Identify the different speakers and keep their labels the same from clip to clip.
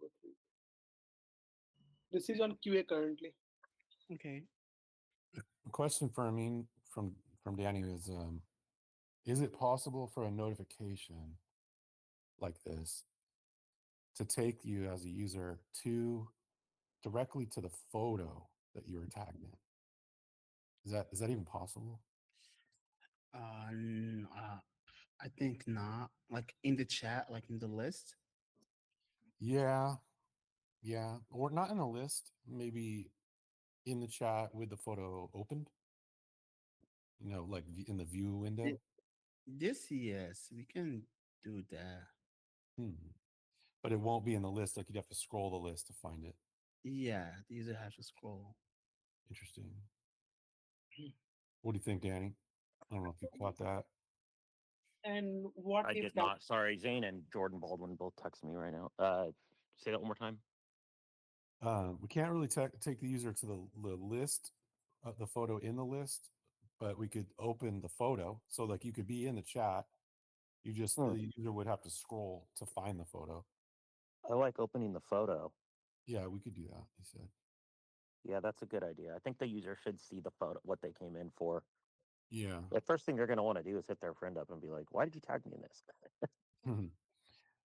Speaker 1: go through. This is on QA currently.
Speaker 2: Okay.
Speaker 3: A question for Amin from from Danny is um, is it possible for a notification like this to take you as a user to directly to the photo that you were tagged in? Is that is that even possible?
Speaker 2: Uh, n- uh, I think not. Like in the chat, like in the list.
Speaker 3: Yeah, yeah, or not in a list, maybe in the chat with the photo opened. You know, like v- in the view window.
Speaker 2: This yes, we can do that.
Speaker 3: Hmm. But it won't be in the list. Like you'd have to scroll the list to find it.
Speaker 2: Yeah, the user has to scroll.
Speaker 3: Interesting. What do you think, Danny? I don't know if you caught that.
Speaker 1: And what
Speaker 4: I
Speaker 1: if
Speaker 4: did
Speaker 1: that-
Speaker 4: not. Sorry, Zane and Jordan Baldwin both text me right now. Uh, say that one more time.
Speaker 3: Uh, we can't really ta- take the user to the, the list, uh, the photo in the list, but we could open the photo. So like you could be in the chat. You just
Speaker 4: Hmm.
Speaker 3: the user would have to scroll to find the photo.
Speaker 4: I like opening the photo.
Speaker 3: Yeah, we could do that. He said.
Speaker 4: Yeah, that's a good idea. I think the user should see the photo, what they came in for.
Speaker 3: Yeah.
Speaker 4: The first thing they're going to want to do is hit their friend up and be like, "Why did you tag me in this?"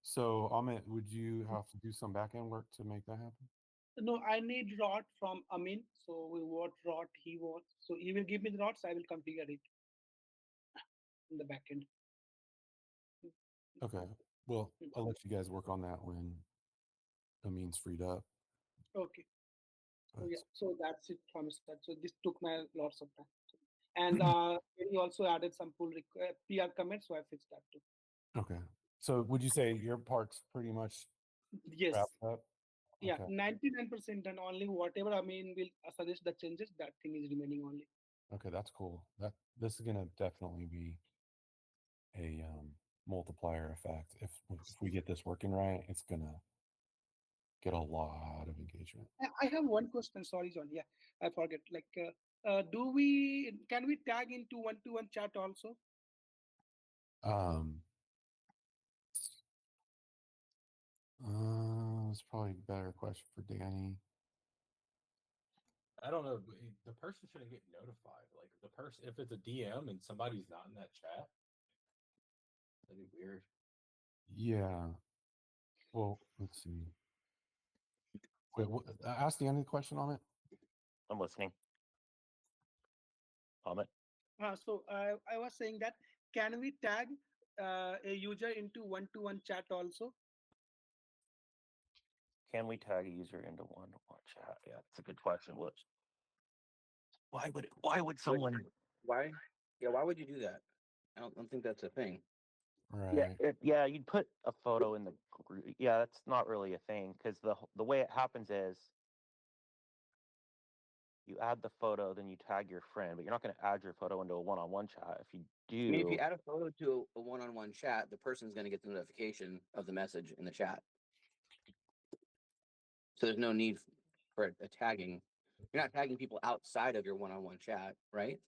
Speaker 3: So Amit, would you have to do some back end work to make that happen?
Speaker 1: No, I need rot from Amin. So we what rot he wants. So he will give me the rots. I will configure it in the backend.
Speaker 3: Okay. Well,
Speaker 1: Mm.
Speaker 3: I'll let you guys work on that when Amin's freed up.
Speaker 1: Okay. So
Speaker 3: but-
Speaker 1: yeah. So that's it from start. So this took my lots of time. And
Speaker 3: Mm-hmm.
Speaker 1: uh, he also added some pull requ- uh, PR commits, so I fixed that too.
Speaker 3: Okay. So would you say your part's pretty much
Speaker 1: Yes.
Speaker 3: wrapped up?
Speaker 1: Yeah.
Speaker 3: Okay.
Speaker 1: Ninety-nine percent, and only whatever Amin will uh, suggest the changes, that thing is remaining only.
Speaker 3: Okay, that's cool. That this is gonna definitely be a um, multiplier effect. If if we get this working right, it's gonna get a lot of engagement.
Speaker 1: I- I have one question. Sorry, John. Yeah, I forget. Like, uh, uh, do we can we tag into one-to-one chat also?
Speaker 3: Um, uh, it's probably a better question for Danny.
Speaker 5: I don't know. but it- The person shouldn't get notified. Like the person, if it's a DM and somebody's not in that chat, that'd be weird.
Speaker 3: Yeah. Well, let's see. Wait, what, uh, ask Danny the question on it.
Speaker 4: I'm listening. Comment.
Speaker 1: Uh, so I I was saying that can we tag uh, a user into one-to-one chat also?
Speaker 4: Can we tag a user into one to one chat? Yeah, that's a good question. What? Why would why would someone?
Speaker 6: Why? Yeah, why would you do that? I don't, don't think that's a thing.
Speaker 3: Right.
Speaker 4: Yeah, it, yeah, you'd put a photo in the group. Yeah, that's not really a thing because the wh- the way it happens is you add the photo, then you tag your friend, but you're not going to add your photo into a one-on-one chat. If you
Speaker 6: I
Speaker 4: do,
Speaker 6: mean, if you add a photo to a one-on-one chat, the person's gonna get the notification of the message in the chat. So there's no need for a- a tagging. You're not tagging people outside of your one-on-one chat, right?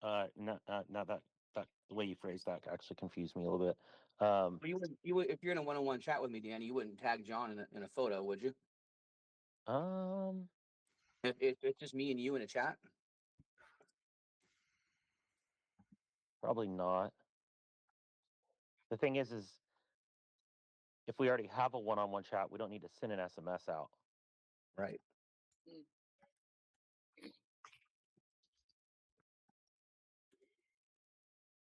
Speaker 4: uh, no, uh, no, that that the way you phrased that actually confused me a little bit. Um,
Speaker 6: But you would, you would, if you're in a one-on-one chat with me, Danny, you wouldn't tag John in a, in a photo, would you?
Speaker 4: um,
Speaker 6: If, if it's just me and you in a chat,
Speaker 4: probably not. The thing is, is if we already have a one-on-one chat, we don't need to send an SMS out.
Speaker 6: right?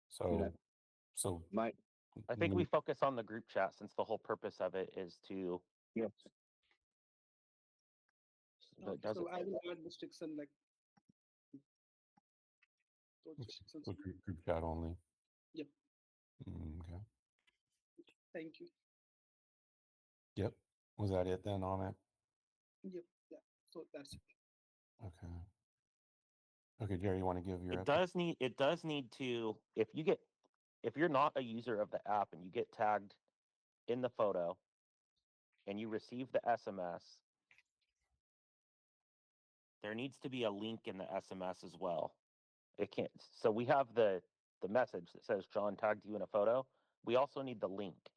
Speaker 3: So, so
Speaker 6: My,
Speaker 4: I think
Speaker 3: Mm.
Speaker 4: we
Speaker 1: Mm-hmm.
Speaker 4: focus on the group chat since the whole purpose of it is to.
Speaker 6: Yes.
Speaker 4: So it
Speaker 1: Okay,
Speaker 4: doesn't-
Speaker 1: so I will add restriction like. those restrictions.
Speaker 3: So group, group chat only.
Speaker 1: Yep.
Speaker 3: Mm, Okay.
Speaker 1: Thank you.
Speaker 3: Yep. Was that it then on it?
Speaker 1: Yep. Yeah. So that's it.
Speaker 3: Okay. Okay, Jerry, you want to give your
Speaker 4: It
Speaker 3: update?
Speaker 4: does need, it does need to, if you get, if you're not a user of the app and you get tagged in the photo and you receive the SMS, there needs to be a link in the SMS as well. It can't, so we have the, the message that says John tagged you in a photo. We also need the link.